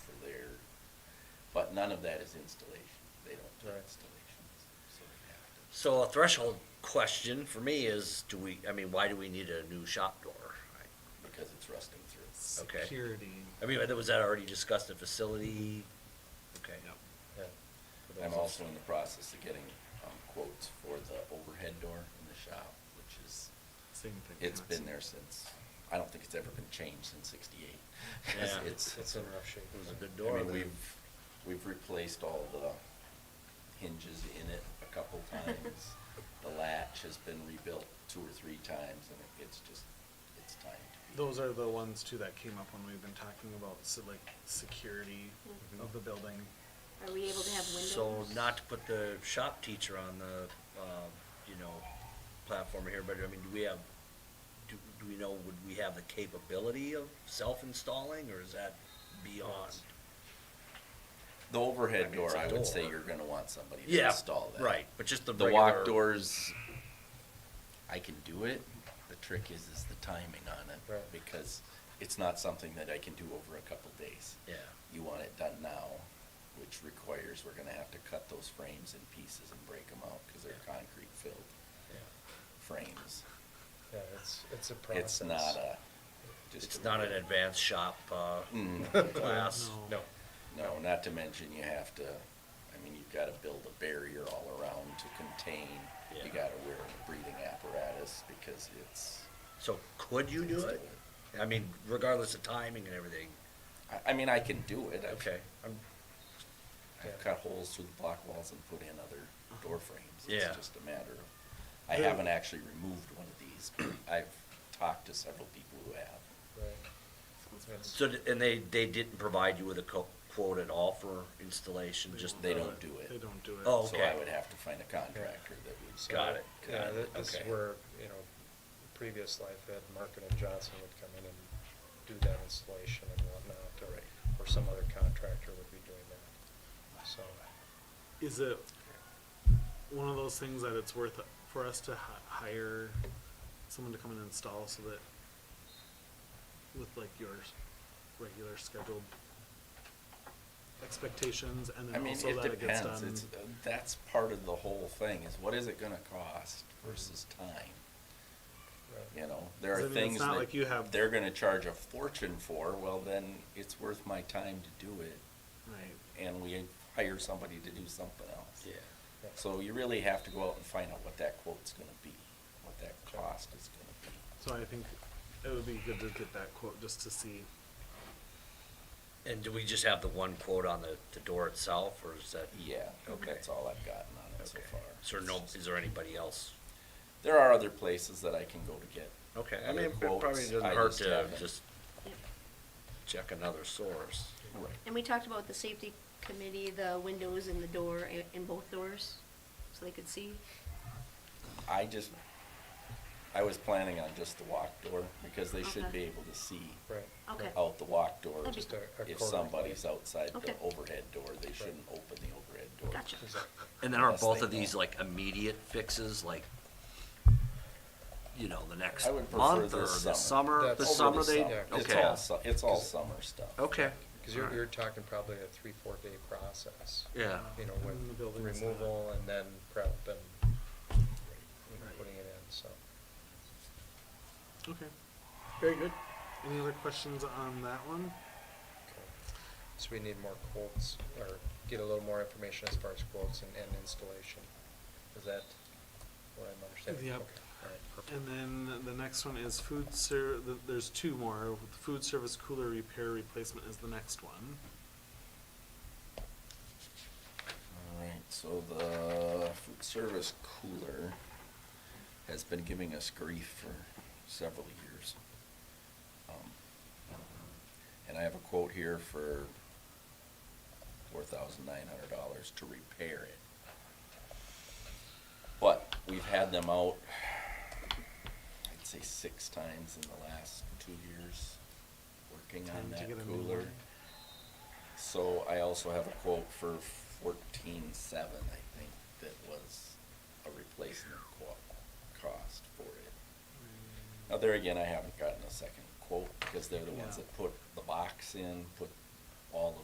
but none of that is installation. They don't do Right. installations, so they have to. So a threshold question for me is, do we, I mean, why do we need a new shop door? because it's rusting through. Okay. Security. I mean, was that already discussed at facility? Okay. yeah. I'm also in the process of getting um, quotes for the overhead door in the shop, which is, Same thing. it's been there since, I don't think it's ever been changed since sixty-eight. Yeah. It's, It's in rough shape. It was a good I door. mean, then. we've, we've replaced all the hinges in it a couple times. The latch has been rebuilt two or three times, and it- it's just, it's time to be. Those are the ones too that came up when we've been talking about, so like, security Mhm. of the building. Are we able to have windows? So not to put the shop teacher on the, uh, you know, platform here, but I mean, do we have, do, do we know, would we have the capability of self-installing, or is that beyond? The I overhead mean, it's door, a I would say door. you're gonna want somebody to Yeah, install that. Right, but just the The regular. walk doors, I can do it. The trick is, is the timing on it, Right. because it's not something that I can do over a couple days. Yeah, You want it done now, which requires we're gonna have to cut those frames in pieces and break them out, cause they're concrete filled yeah. frames. Yeah, it's, it's a It's not a. just It's a- not an advanced shop, uh, Mm, class. No. No, not to mention you have to, I mean, you've gotta build a barrier all around to contain. Yeah. You gotta wear a breathing apparatus because it's. So could you do it? I mean, regardless of timing and everything, I, I mean, I can do it. I've- okay, I'm, I've cut holes through the block walls and put in other door frames. Yeah. It's just a matter of, I Yeah. haven't actually removed one of these. but I've talked to several people who have. so, d- and they, they didn't provide you with a co- quote at all for installation, just? They the- don't do it. They don't do it. Oh. So Okay. I would have to find a contractor that would. Got it. Yeah, that- this is Okay. where, you know, previous life had Markin and Johnson would come in and do that installation and whatnot, or, Right. or some other contractor would be doing that. So, Is it one of those things that it's worth for us to hi- hire someone to come and install so that with like your s- regular scheduled expectations and I then mean, also it that it gets depends. done? It's, uh, that's part of the whole thing is what is it gonna cost versus time? right. You know, there 'Cause I are mean, it's things not like you that have- they're gonna charge a fortune for. Well, then it's worth my time to do it. Right. And we hire somebody to do something else. Yeah. Yeah. So you really have to go out and find out what that quote's gonna be, what that cost is gonna be. So I think it would be good to get that quote just to see. And do we just have the one quote on the, the door itself, or is that? Yeah, Okay. that's all I've gotten on it so Okay. far. So no, is there anybody else? There are other places that I can go to get. Okay, I other mean, it probably quotes. doesn't I hurt just to haven't- just check another source. Right. And we talked about the safety committee, the windows and the door, in- in both doors, so they could see. I just, I was planning on just the walk door, because they should Okay. be able to see Right. Uh-huh. Okay. out the walk door. That'd be Just a- a If corner somebody's light. outside the Okay. overhead door, they shouldn't open the overhead door. Gotcha. Is that- And then are Unless both they of these know. like immediate fixes, like, you know, the next I would prefer month or this summer. the summer, That's the over summer Over the they, summer. It's okay, all, su- it's all summer stuff. okay. Because you're, Alright. you're talking probably a three, four day process. Yeah. You know, And the with building's not- removal and then prep and you know, Right. putting it in, so. Okay. Very good. Any other questions on that one? okay. So we need more quotes, or get a little more information as far as quotes and, and installation. Is that what I'm understanding? Yep. Okay, all right, perfect. And then the next one is food ser, th- there's two more. The Food service cooler repair replacement is the next one. All right, so the food service cooler has been giving us grief for several years. Um, And I have a quote here for four thousand nine hundred dollars to repair it. But we've had them out, I'd say six times in the last two years, working Time on to that get a new cooler. one. So I also have a quote for fourteen seven, I think, that was a replacement quote, cost for it. Now, there again, I haven't gotten a second quote, because they're the ones Yeah. that put the box in, put all